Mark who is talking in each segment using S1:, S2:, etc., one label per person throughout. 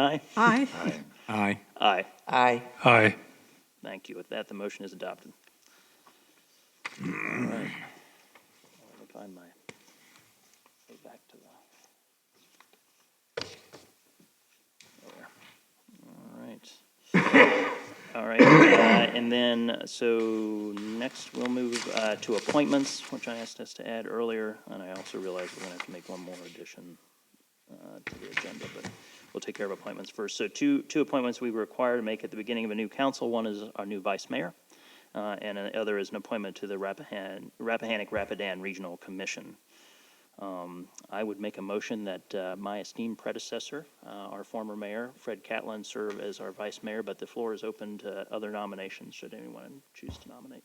S1: Aye.
S2: Aye.
S3: Aye.
S1: Aye.
S4: Aye.
S5: Aye.
S1: Thank you. With that, the motion is adopted. All right. Let me find my, go back to the. there. All right. All right, uh, and then, so next we'll move uh, to appointments, which I asked us to add earlier, and I also realize we're gonna have to make one more addition uh, to the agenda, but we'll take care of appointments first. So two, two appointments we were required to make at the beginning of a new council. One is our new vice mayor, uh, and the other is an appointment to the Rappahan, Rappahannock Rapidan Regional Commission. Um, I would make a motion that uh, my esteemed predecessor, uh, our former mayor, Fred Catlin, serve as our vice mayor, but the floor is open to other nominations, should anyone choose to nominate.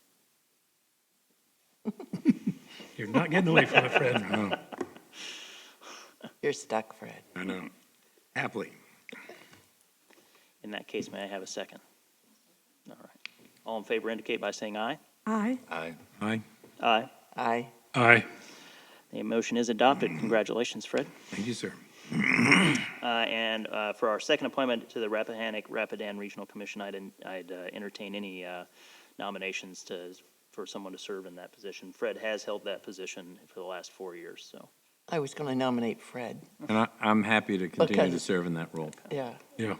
S5: You're not getting away from it, Fred.
S4: You're stuck, Fred.
S3: I know. Happily.
S1: In that case, may I have a second? All right. All in favor indicate by saying aye.
S2: Aye.
S3: Aye. Aye.
S1: Aye.
S4: Aye.
S5: Aye.
S1: The motion is adopted. Congratulations, Fred.
S3: Thank you, sir.
S1: Uh, And uh, for our second appointment to the Rappahannock Rapidan Regional Commission, I'd en- I'd uh, entertain any uh, nominations to, for someone to serve in that position. Fred has held that position for the last four years, so.
S4: I was going to nominate Fred.
S3: And I, I'm happy to continue
S4: Okay.
S3: to serve in that role.
S4: Yeah.
S5: Yeah.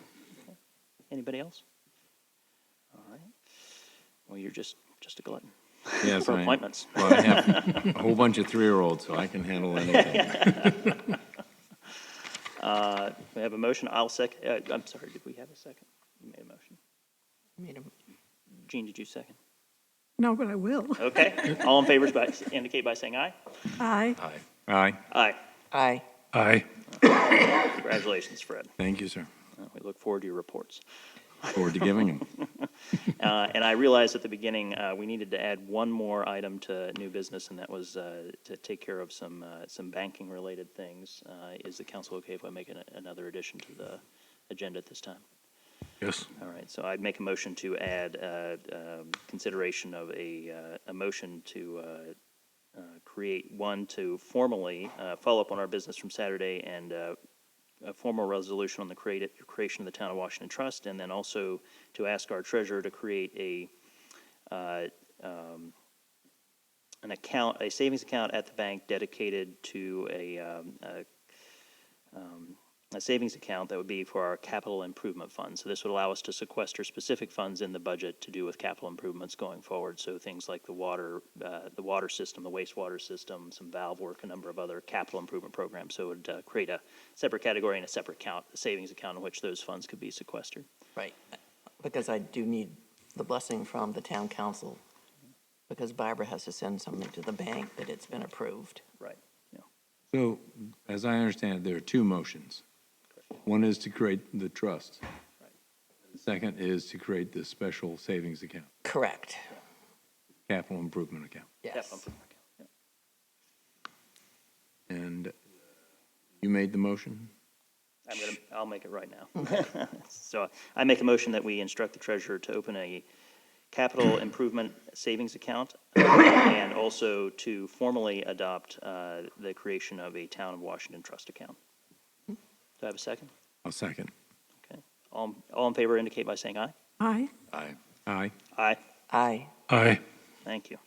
S1: Anybody else? All right. Well, you're just, just a glutton
S3: Yes,
S1: for
S3: I am.
S1: appointments.
S3: Well, I have a whole bunch of three-year-olds, so I can handle anything.
S1: Uh, We have a motion. I'll sec, uh, I'm sorry, did we have a second? You made a motion.
S4: Made a-
S1: Gene, did you second?
S2: No, but I will.
S1: Okay. All in favor, by- indicate by saying aye.
S2: Aye.
S3: Aye. Aye.
S1: Aye.
S4: Aye.
S5: Aye.
S1: Congratulations, Fred.
S3: Thank you, sir.
S1: Uh, We look forward to your reports.
S3: Forward to giving them.
S1: Uh, And I realized at the beginning, uh, we needed to add one more item to new business, and that was uh, to take care of some, uh, some banking-related things. Uh, Is the council okay if I make an- another addition to the agenda at this time?
S5: Yes.
S1: All right, so I'd make a motion to add uh, um, consideration of a, uh, a motion to uh, uh, create one to formally uh, follow up on our business from Saturday and uh, a formal resolution on the creati- creation of the Town of Washington Trust, and then also to ask our treasurer to create a, uh, um, an account, a savings account at the bank dedicated to a, um, a a savings account that would be for our capital improvement fund. So this would allow us to sequester specific funds in the budget to do with capital improvements going forward. So things like the water, uh, the water system, the wastewater system, some valve work, a number of other capital improvement programs. So it would uh, create a separate category and a separate account, a savings account in which those funds could be sequestered.
S4: Right. Because I do need the blessing from the town council, because Barbara has to send something to the bank that it's been approved.
S1: Right.
S3: So, as I understand it, there are two motions. One is to create the trust. The Second is to create this special savings account,
S4: Correct.
S3: capital improvement account.
S4: Yes.
S3: And you made the motion?
S1: I'm gonna, I'll make it right now. So I make a motion that we instruct the treasurer to open a capital improvement savings account uh, and also to formally adopt uh, the creation of a Town of Washington trust account. Do I have a second?
S3: I'll second.
S1: Okay. All, all in favor indicate by saying aye.
S2: Aye.
S3: Aye. Aye.
S1: Aye.
S4: Aye.
S5: Aye.
S1: Thank you.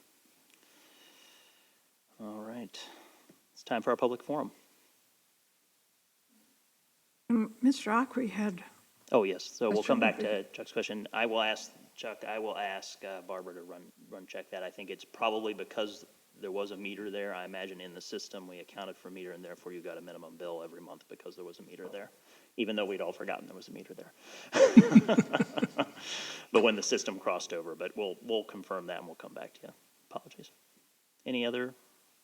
S1: All right. It's time for our public forum.
S2: Um, Mr. Ockrey had,
S1: Oh, yes, so we'll come back to Chuck's question. I will ask, Chuck, I will ask uh, Barbara to run, run check that. I think it's probably because there was a meter there, I imagine in the system, we accounted for meter, and therefore you got a minimum bill every month because there was a meter there, even though we'd all forgotten there was a meter there. But when the system crossed over, but we'll, we'll confirm that and we'll come back to you. Apologies. Any other,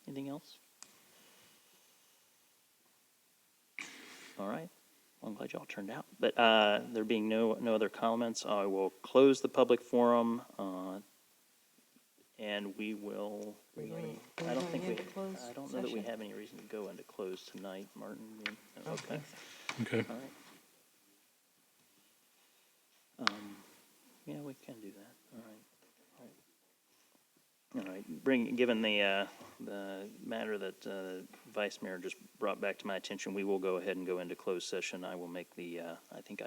S1: anything else? All right. Well, I'm glad y'all turned out. But uh, there being no, no other comments, I will close the public forum. uh, And we will, I don't think we, I don't know that we have any reason to go into close tonight, Martin. you- no, Okay.
S5: Okay.
S1: All right. Um, Yeah, we can do that. All right. All right. All right, bring, given the, uh, the matter that uh, Vice Mayor just brought back to my attention, we will go ahead and go into closed session. I will make the, uh, I think I.